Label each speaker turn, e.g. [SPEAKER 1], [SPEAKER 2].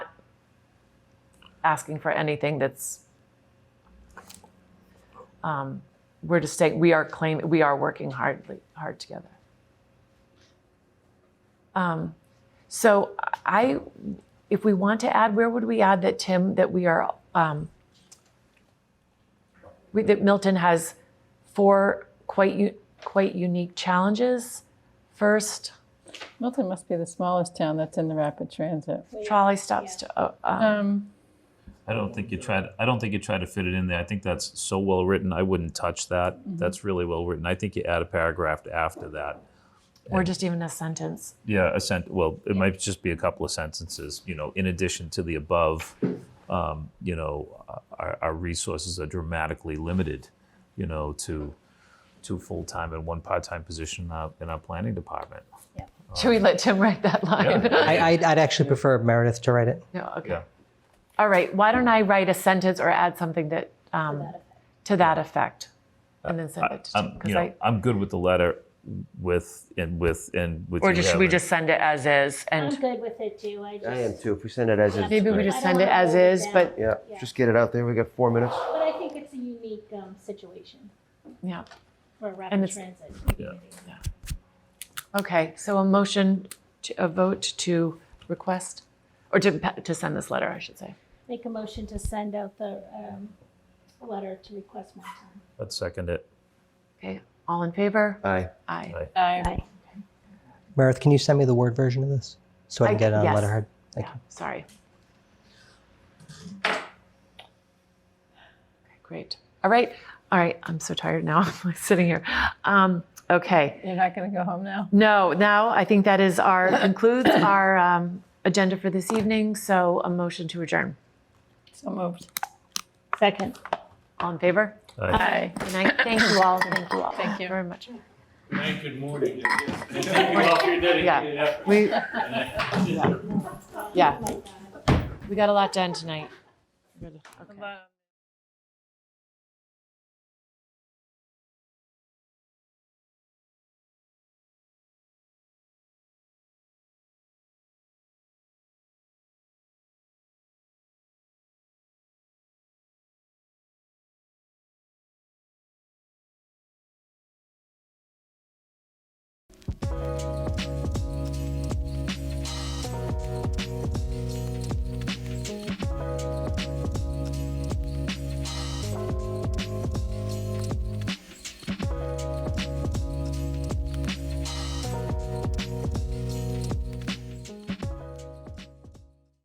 [SPEAKER 1] asking for anything that's, um, we're just saying, we are claim, we are working hardly, hard together. Um, So I, if we want to add, where would we add that, Tim, that we are, um, we- that Milton has four quite, u- quite unique challenges? First,
[SPEAKER 2] Milton must be the smallest town that's in the rapid transit.
[SPEAKER 1] trolley stops to, uh, uh,
[SPEAKER 2] Um,
[SPEAKER 3] I don't think you tried. I don't think you try to fit it in there. I think that's so well written. I wouldn't touch that.
[SPEAKER 1] Mm-hmm.
[SPEAKER 3] That's really well written. I think you add a paragraph after that.
[SPEAKER 1] or just even a sentence.
[SPEAKER 3] Yeah, a sent. Well, it might just be a couple of sentences. You know, in addition to the above, um, you know, our, our resources are dramatically limited. You know, to two full time and one part time position in our, in our planning department.
[SPEAKER 1] Should we let Tim write that line?
[SPEAKER 4] I, I'd, I'd actually prefer Meredith to write it.
[SPEAKER 1] No, okay.
[SPEAKER 3] Yeah.
[SPEAKER 1] All right, why don't I write a sentence or add something that, um, to that effect? And then send it to Tim,
[SPEAKER 3] I'm, you
[SPEAKER 1] because
[SPEAKER 3] know,
[SPEAKER 1] I,
[SPEAKER 3] I'm good with the letter, with and with and with.
[SPEAKER 1] or
[SPEAKER 3] you
[SPEAKER 1] just, should we
[SPEAKER 3] having-
[SPEAKER 1] just send it as is?
[SPEAKER 5] I'm
[SPEAKER 1] And
[SPEAKER 5] good with it too, I just.
[SPEAKER 6] I am too. If we send it as is,
[SPEAKER 1] maybe we
[SPEAKER 6] great.
[SPEAKER 1] just
[SPEAKER 5] I don't
[SPEAKER 1] send it
[SPEAKER 5] wanna
[SPEAKER 1] as
[SPEAKER 5] hold it
[SPEAKER 1] is,
[SPEAKER 5] down.
[SPEAKER 1] but,
[SPEAKER 6] yeah,
[SPEAKER 5] Yeah.
[SPEAKER 6] just get it out there. We got four minutes.
[SPEAKER 5] But I think it's a unique, um, situation
[SPEAKER 1] yeah.
[SPEAKER 5] for a
[SPEAKER 1] And
[SPEAKER 5] rapid
[SPEAKER 1] it's-
[SPEAKER 5] transit.
[SPEAKER 3] Yeah.
[SPEAKER 1] Okay, so a motion, to a vote to request, or to, pa- to send this letter, I should say.
[SPEAKER 5] Make a motion to send out the, um, letter to request more time.
[SPEAKER 3] I'd second it.
[SPEAKER 1] Okay, all in favor?
[SPEAKER 6] Aye.
[SPEAKER 1] Aye.
[SPEAKER 5] Aye.
[SPEAKER 4] Meredith, can you send me the Word version of this so I can
[SPEAKER 1] I-
[SPEAKER 4] get it on
[SPEAKER 1] yes.
[SPEAKER 4] letterhead? Thank
[SPEAKER 1] Yeah, sorry. Okay, Great. All right, all right, I'm so tired now, I'm like sitting here. Um, okay.
[SPEAKER 2] you're not going to go home now.
[SPEAKER 1] No, now I think that is our, concludes our um, agenda for this evening, so a motion to adjourn.
[SPEAKER 2] So moved.
[SPEAKER 5] Second.
[SPEAKER 1] All in favor?
[SPEAKER 3] Aye.
[SPEAKER 2] Aye.
[SPEAKER 1] Good night. Thank you all, thank you all.
[SPEAKER 2] Thank you.
[SPEAKER 1] Very much.
[SPEAKER 7] Thank good morning. And thank you all for your dedicated effort.
[SPEAKER 1] We,
[SPEAKER 7] And I-
[SPEAKER 1] yeah, we got a lot done tonight. Okay.
[SPEAKER 2] Bye.